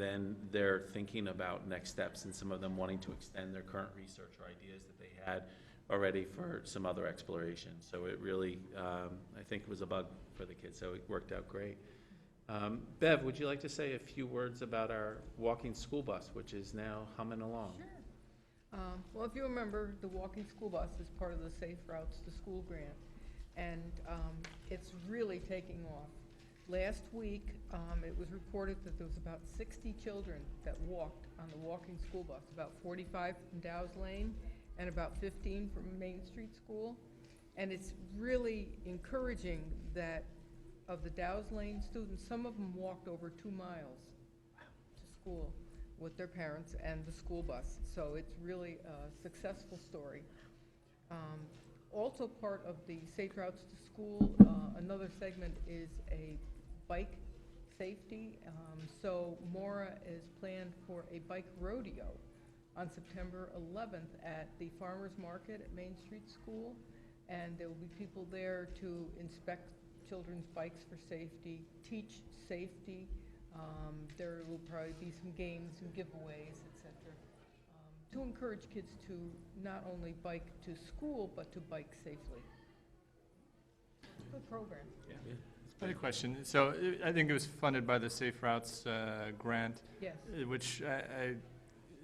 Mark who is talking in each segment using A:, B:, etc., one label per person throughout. A: Then they're thinking about next steps and some of them wanting to extend their current research or ideas that they had already for some other exploration. So it really, um, I think was a bug for the kids, so it worked out great. Um, Bev, would you like to say a few words about our walking school bus, which is now humming along?
B: Sure. Um, Well, if you remember, the walking school bus is part of the Safe Routes to School grant, and um, it's really taking off. Last week, um, it was reported that there was about 60 children that walked on the walking school bus, about 45 from Dow's Lane and about 15 from Main Street School. And it's really encouraging that of the Dow's Lane students, some of them walked over two miles to school with their parents and the school bus. So it's really a successful story. Um, Also part of the Safe Routes to School, uh, another segment is a bike safety. Um, So Mora is planned for a bike rodeo on September 11th at the Farmers Market at Main Street School. And there will be people there to inspect children's bikes for safety, teach safety, um, There will probably be some games, some giveaways, et cetera, um, to encourage kids to not only bike to school, but to bike safely. Good program.
A: Yeah.
C: I had a question. So uh, I think it was funded by the Safe Routes uh, grant,
B: Yes.
C: uh, which I, I,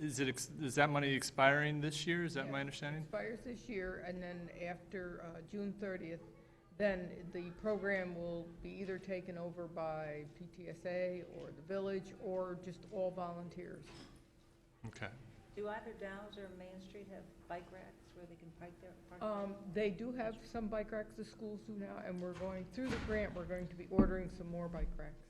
C: is it, ex- is that money expiring this year? Is that
B: Yeah.
C: my understanding?
B: Expires this year, and then after uh, June 30th, then the program will be either taken over by PTSA or the village, or just all volunteers.
C: Okay.
D: Do either Downs or Main Street have bike racks where they can park their, park? their-
B: Um, They do have some bike racks, the schools do now, and we're going, through the grant, we're going to be ordering some more bike racks.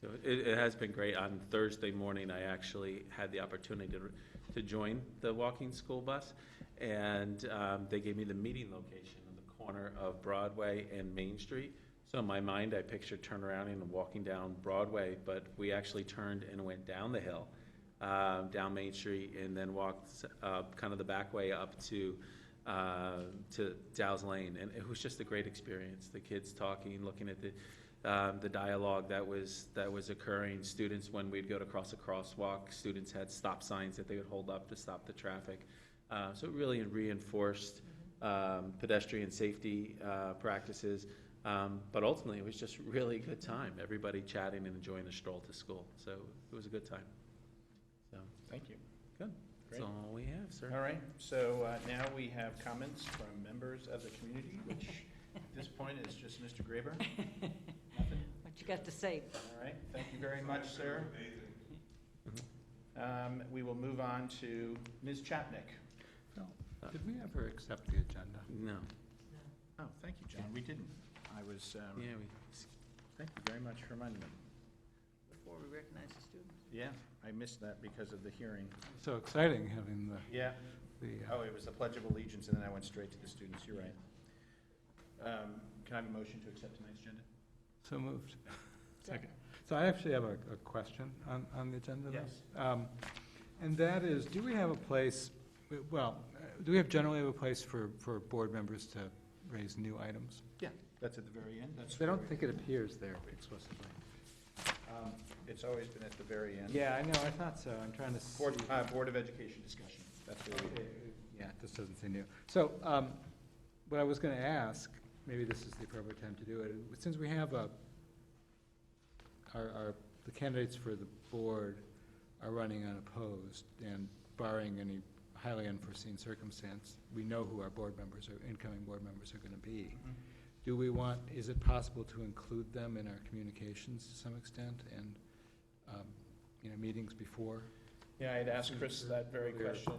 A: So it, it has been great. On Thursday morning, I actually had the opportunity to, to join the walking school bus. And, um, they gave me the meeting location in the corner of Broadway and Main Street. So in my mind, I pictured turnaround and walking down Broadway, but we actually turned and went down the hill, uh, down Main Street and then walked, uh, kind of the back way up to, uh, to Dow's Lane. And it was just a great experience. The kids talking, looking at the, um, the dialogue that was, that was occurring. Students, when we'd go to cross a crosswalk, students had stop signs that they would hold up to stop the traffic. Uh, So it really reinforced um, pedestrian safety uh, practices. Um, But ultimately, it was just really a good time, everybody chatting and enjoying the stroll to school. So it was a good time. So
E: Thank you.
A: that's all we have, sir.
E: All right, so uh, now we have comments from members of the community, which at this point is just Mr. Graber. Nothing?
D: What you got to say?
E: All right, thank you very much, sir. Um, We will move on to Ms. Chapnick.
F: Did we ever accept the agenda?
A: No,
E: Oh, thank you, John, we didn't. I was, um,
A: yeah, we,
E: thank you very much for reminding me.
D: Before we recognize the students.
E: Yeah, I missed that because of the hearing.
F: So exciting having the,
E: Yeah,
F: the, uh,
E: oh, it was the Pledge of Allegiance, and then I went straight to the students, you're right. Um, Can I have a motion to accept tonight's agenda?
F: so moved. Second. So I actually have a, a question on, on the agenda. though.
E: Yes.
F: Um, And that is, do we have a place, well, uh, do we have generally have a place for, for board members to raise new items?
E: Yeah, that's at the very end, that's.
F: I
E: where
F: don't
E: we-
F: think it appears there explicitly.
E: Um, It's always been at the very end.
F: Yeah, I know, I thought so, I'm trying to see.
E: Board, uh, Board of Education discussion, that's where we,
F: Yeah, this doesn't say new. So, um, what I was gonna ask, maybe this is the appropriate time to do it, since we have a, our, our, the candidates for the board are running unopposed, and barring any highly unforeseen circumstance, we know who our board members, or incoming board members are gonna be. Do we want, is it possible to include them in our communications to some extent, and, um, you know, meetings before?
E: yeah, I had asked Chris that very
F: Earlier.
E: question,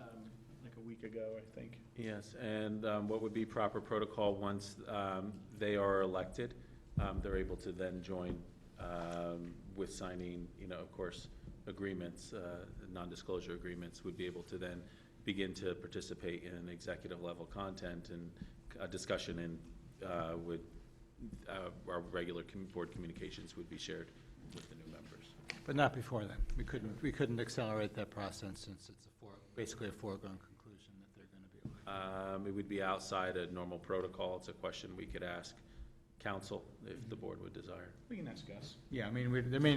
E: um, like a week ago, I think.
A: Yes, and um, what would be proper protocol once um, they are elected, um, they're able to then join um, with signing, you know, of course, agreements, uh, non-disclosure agreements, would be able to then begin to participate in executive level content and uh, discussion and uh, would, uh, our regular com- board communications would be shared with the new members.
F: But not before then. We couldn't, we couldn't accelerate that process since it's a fore, basically a foregone conclusion that they're going to be elected.
A: Um, It would be outside a normal protocol. It's a question we could ask
G: council, if the board would desire.
A: We can ask Gus.
E: Yeah, I mean, we, there may